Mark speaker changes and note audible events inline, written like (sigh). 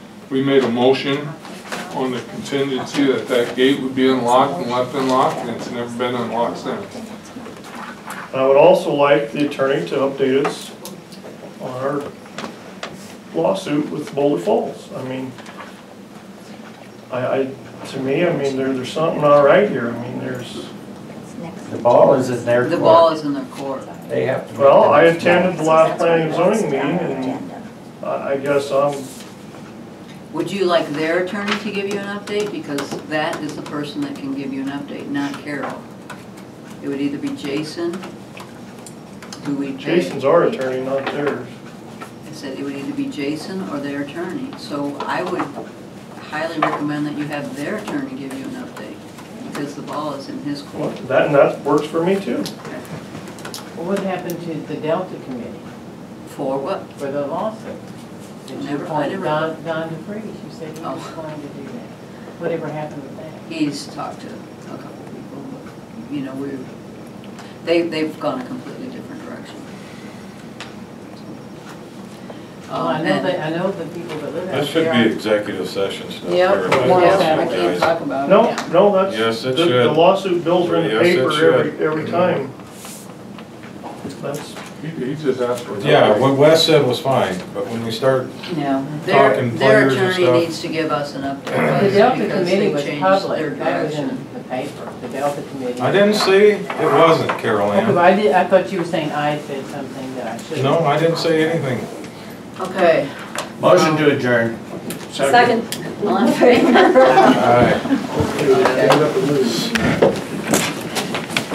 Speaker 1: we made a motion on the contingency that that gate would be unlocked and left unlocked, and it's never been unlocked since.
Speaker 2: I would also like the attorney to update us on our lawsuit with Boulder Falls. I mean, I, I, to me, I mean, there, there's something not right here. I mean, there's,
Speaker 3: The ball is in their
Speaker 4: The ball
Speaker 3: court.
Speaker 4: is in their court.
Speaker 3: They have to. make
Speaker 2: well, I
Speaker 3: the-
Speaker 2: attended the last planning and zoning meeting and I, I guess I'm,
Speaker 4: Would you like their attorney to give you an update? Because that is the person that can give you an update, not Carol. It would either be Jason, who we pay.
Speaker 2: Jason's our attorney, not theirs.
Speaker 4: I said it would either be Jason or their attorney. So I would highly recommend that you have their attorney give you an update, because the ball is in his
Speaker 2: Well,
Speaker 4: court.
Speaker 2: That, and that works for me too.
Speaker 5: Well, What happened to the Delta Committee
Speaker 4: For what?
Speaker 5: for the lawsuit? Did you
Speaker 4: Never- I
Speaker 5: appoint
Speaker 4: never-
Speaker 5: Don, Don DeFreeze, you said he
Speaker 4: Oh.
Speaker 5: was going to do that. Whatever happened with that?
Speaker 4: He's talked to a couple people, but, you know, we, they, they've gone a completely different direction. Oh,
Speaker 5: Well,
Speaker 4: Um,
Speaker 5: Oh, I know that, I know the people that live
Speaker 6: That
Speaker 5: out
Speaker 6: should be
Speaker 5: there.
Speaker 6: executive session stuff.
Speaker 4: Yep,
Speaker 6: Everybody
Speaker 5: yeah,
Speaker 4: yep, I
Speaker 6: knows
Speaker 4: can't
Speaker 6: that,
Speaker 4: talk
Speaker 6: guys.
Speaker 4: about it.
Speaker 2: No, no, that's.
Speaker 6: Yes, it
Speaker 2: the- The
Speaker 6: should.
Speaker 2: lawsuit bills are in the
Speaker 6: Yes, it
Speaker 2: paper every,
Speaker 6: should.
Speaker 2: every time. That's,
Speaker 1: He, he just asked for. an
Speaker 6: Yeah,
Speaker 1: update.
Speaker 6: what Wes said was fine, but when we start,
Speaker 4: No, their,
Speaker 6: Talking
Speaker 4: their
Speaker 6: players and
Speaker 4: attorney
Speaker 6: stuff.
Speaker 4: needs to give us an
Speaker 5: The
Speaker 4: update,
Speaker 5: Delta
Speaker 4: because
Speaker 5: Committee
Speaker 4: they
Speaker 5: was
Speaker 4: changed their
Speaker 5: public, that was
Speaker 4: direction.
Speaker 5: in the paper, the Delta Committee.
Speaker 6: I didn't see, it wasn't Carol
Speaker 5: Okay, but
Speaker 6: Ann.
Speaker 5: I did, I thought you were saying I said something that I shouldn't.
Speaker 6: No, I didn't say anything.
Speaker 4: Okay,
Speaker 3: Motion to adjourn.
Speaker 7: Second.
Speaker 5: (laughs)
Speaker 4: all in favor?
Speaker 6: All right.
Speaker 3: Okay.